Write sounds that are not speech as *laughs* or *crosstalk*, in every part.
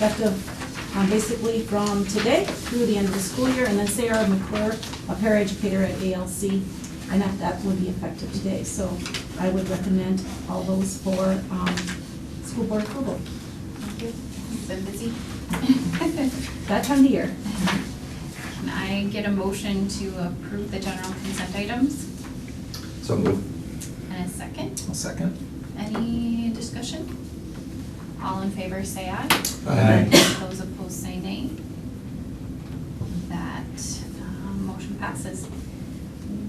effective um, basically from today through the end of the school year. And then Sarah McClure, a paraeducator at ALC, and that, that would be effective today. So I would recommend all those for um, school board approval, Thank you. Been busy. that time of year. Can I get a motion to approve the general consent items So move. and a second? I'll second. Any discussion? All in favor, say aye. Aye. Those opposed, say nay. That um, motion passes.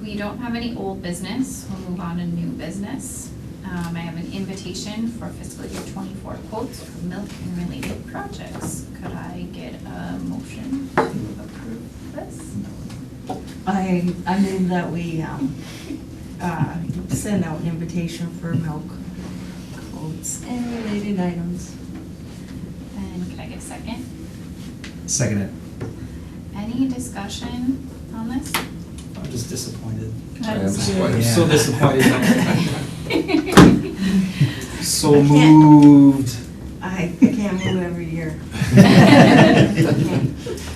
We don't have any old business. We'll move on to new business. Um, I have an invitation for fiscal year twenty-four quotes for milk and related projects. Could I get a motion to approve this? I, I move that we, um, uh, send out an invitation for milk quotes and related items. And could I get a second? Second it. Any discussion on this? I'm just disappointed. I am disappointed. *laughs* Yeah. *laughs* So disappointed. *laughs* So I can't- moved. I can't move every year.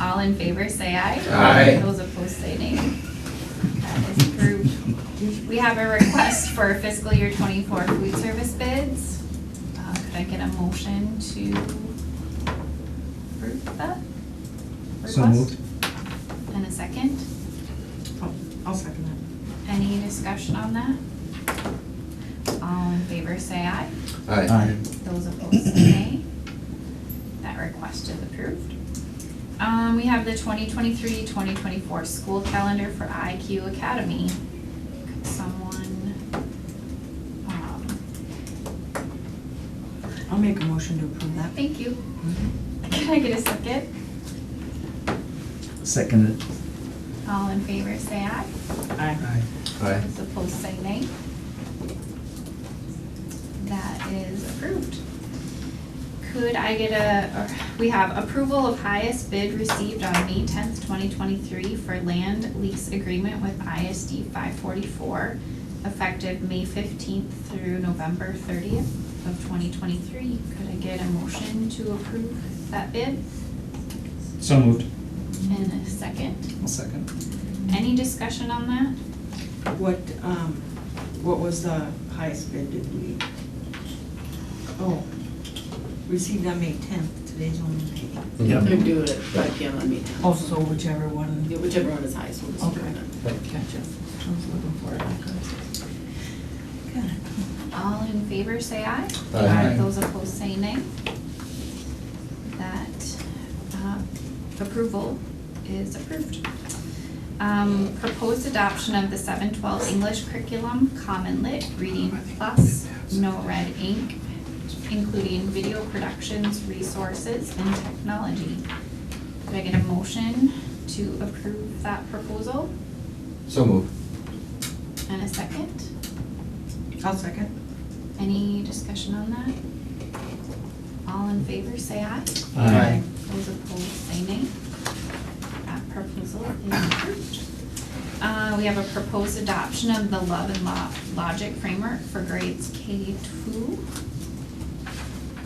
All in favor, say aye. Aye. Those opposed, say nay. That is approved. We have a request for fiscal year twenty-four food service bids. Uh, Could I get a motion to approve that? So request? moved. And a second? I'll- Oh, I'll second that. Any discussion on that? All in favor, say aye. Aye. Those opposed, say nay. That request is approved. Um, we have the 2023-2024 school calendar for IQ Academy. Could someone, um, I'll make a motion to approve that. thank you. *laughs* Can I get a second? Second it. All in favor, say aye. Aye. Aye. Those opposed, say nay. That is approved. Could I get a, we have approval of highest bid received on May tenth, twenty twenty-three for land lease agreement with ISD five forty-four, effective May fifteenth through November thirtieth of twenty twenty-three. Could I get a motion to approve that bid So moved. in a second? I'll second. Any discussion on that? What, um, what was the highest bid did we? Oh, received on May tenth, today's only May. Yeah. They're doing it five PM on meeting. Oh, so whichever one. Yeah, Whichever one is highest, we'll just do Okay. it. Gotcha. I was looking for it. Okay. All in favor, say aye. Aye. Those opposed, say nay. That uh, approval is approved. Um, Proposed adoption of the 712 English curriculum, Common Lit, Reading Plus, No Red Ink, including video productions, resources, and technology. Could I get a motion to approve that proposal So move. and a second? I'll second. Any discussion on that? All in favor, say aye. Aye. Those opposed, say nay. That proposal is approved. Uh, we have a proposed adoption of the Love and Lo- Logic Framework for grades K two.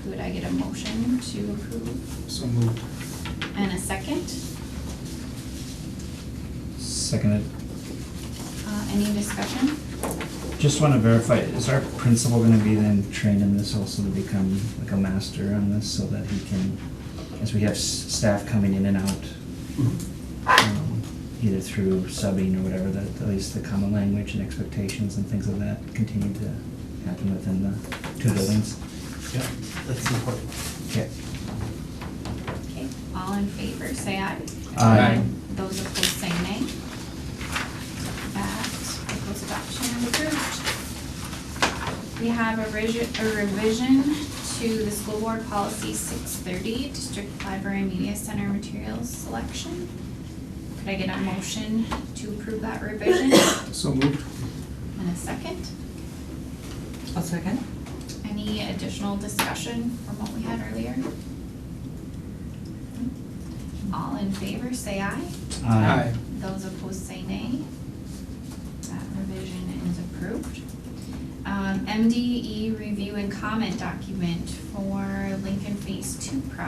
Could I get a motion to approve So moved. and a second? Second it. Uh, any discussion? Just want to verify, is our principal going to be then trained in this also to become like a master on this so that he can, as we have s- staff coming in and out, um, either through subbing or whatever, that at least the common language and expectations and things of that continue to happen within the two buildings? Yeah, that's important. Okay. Okay, all in favor, say aye. Aye. Those opposed, say nay. That proposed adoption is approved. We have a revision, a revision to the school board policy six thirty, district library media center materials selection. Could I get a motion to approve that revision So moved. in a second? I'll second. Any additional discussion from what we had earlier? All in favor, say aye. Those opposed say nay. That revision is approved. E Um, MDE review and comment document for Lincoln Phase Two project.